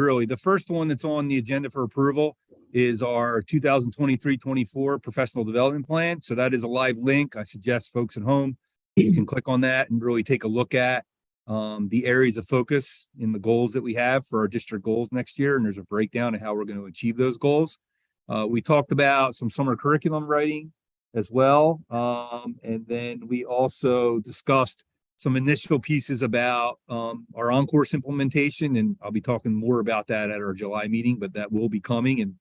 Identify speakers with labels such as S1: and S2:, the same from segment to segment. S1: really. The first one that's on the agenda for approval is our 2023-24 professional development plan. So that is a live link. I suggest folks at home, you can click on that and really take a look at um, the areas of focus in the goals that we have for our district goals next year. And there's a breakdown of how we're going to achieve those goals. Uh, we talked about some summer curriculum writing as well. Um, and then we also discussed some initial pieces about um, our on-course implementation, and I'll be talking more about that at our July meeting, but that will be coming and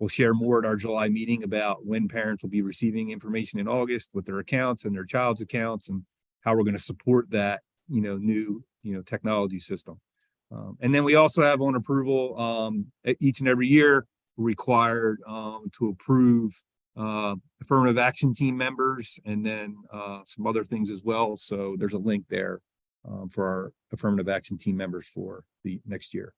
S1: we'll share more at our July meeting about when parents will be receiving information in August with their accounts and their child's accounts and how we're going to support that, you know, new, you know, technology system. Um, and then we also have on approval um, e- each and every year required um, to approve uh, affirmative action team members and then uh, some other things as well. So there's a link there um, for our affirmative action team members for the next year.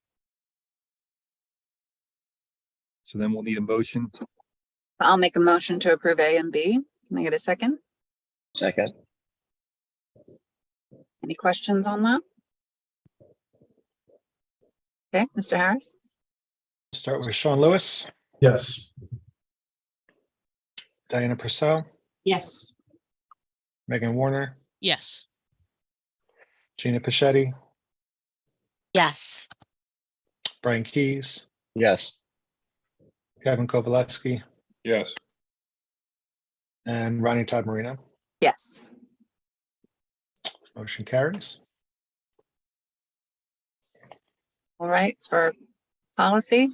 S1: So then we'll need a motion.
S2: I'll make a motion to approve A and B. Can I get a second?
S3: Second,
S2: Any questions on that? Okay, Mr. Harris,
S4: Start with Sean Lewis,
S5: Yes.
S4: Diana Purcell,
S6: Yes.
S4: Megan Warner,
S6: Yes.
S4: Gina Pichetti,
S6: Yes.
S4: Brian Keys,
S3: yes,
S4: Kevin Kowaleski,
S5: Yes.
S4: and Ronnie Todd Marino.
S2: yes.
S4: Motion carries.
S2: All right, for policy,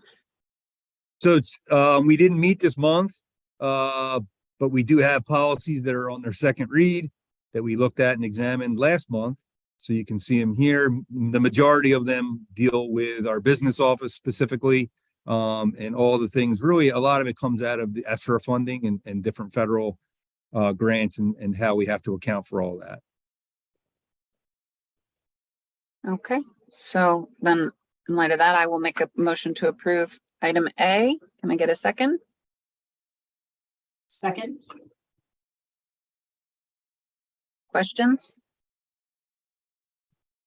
S1: So it's, uh, we didn't meet this month, uh, but we do have policies that are on their second read that we looked at and examined last month. So you can see them here. M- The majority of them deal with our business office specifically. Um, and all the things, really, a lot of it comes out of the ESSER funding and, and different federal, uh, grants and, and how we have to account for all that.
S2: okay. So then in light of that, I will make a motion to approve item A. Can I get a second?
S6: Second?
S2: Questions?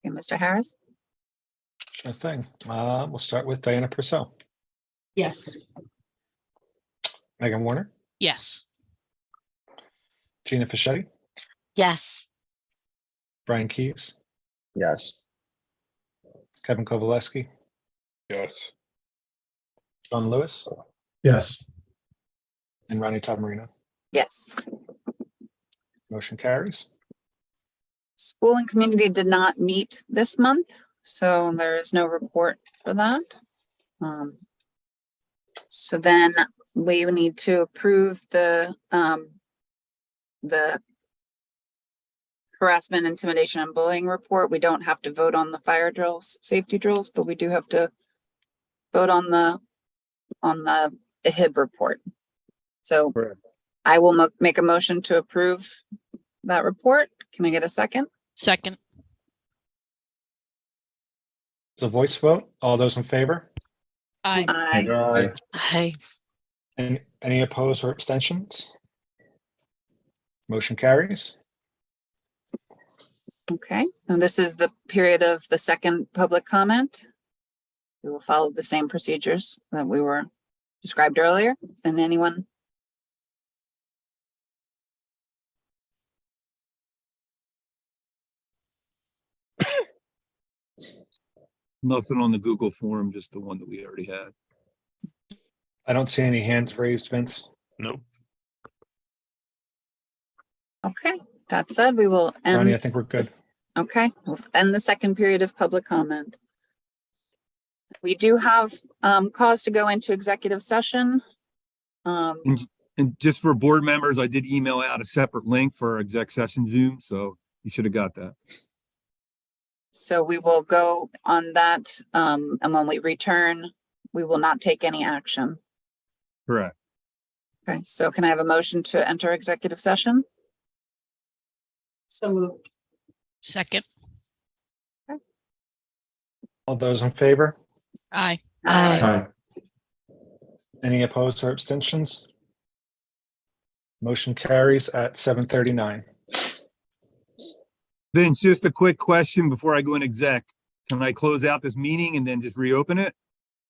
S2: Okay, Mr. Harris,
S4: Sure thing. Uh, We'll start with Diana Purcell,
S6: Yes.
S4: Megan Warner,
S6: Yes.
S4: Gina Pichetti,
S6: Yes.
S4: Brian Keys,
S3: yes,
S4: Kevin Kowaleski,
S5: Yes.
S4: Sean Lewis,
S5: Yes.
S4: and Ronnie Todd Marino.
S2: yes.
S4: Motion carries.
S2: School and community did not meet this month, so there is no report for that. Um, So then we would need to approve the, um, the harassment, intimidation and bullying report. We don't have to vote on the fire drills, safety drills, but we do have to vote on the, on the HIB report. So
S1: Correct.
S2: I will mo- make a motion to approve that report. Can I get a second?
S7: Second,
S4: It's a voice vote. All those in favor?
S7: aye.
S2: Aye.
S3: Aye.
S7: Aye.
S4: And any opposed or abstentions? Motion carries.
S2: Okay, and this is the period of the second public comment. We will follow the same procedures that we were described earlier. And anyone?
S1: Nothing on the Google form, just the one that we already had.
S4: I don't see any hands raised, Vince.
S2: Okay, that said, we will
S4: Ronnie, I
S2: end.
S4: think we're good.
S2: this- Okay, we'll end the second period of public comment. We do have um cause to go into executive session. Um,
S1: And just for board members, I did email out a separate link for our exec session Zoom, so you should have got that.
S2: so we will go on that. Um, and when we return, we will not take any action.
S1: Correct.
S2: Okay, so can I have a motion to enter executive session?
S6: So moved.
S7: Second,
S4: All those in favor?
S7: aye.
S2: Aye.
S5: Aye.
S4: Any opposed or abstentions? Motion carries at seven thirty-nine.
S1: Vince, just a quick question before I go in exec. Can I close out this meeting and then just reopen it?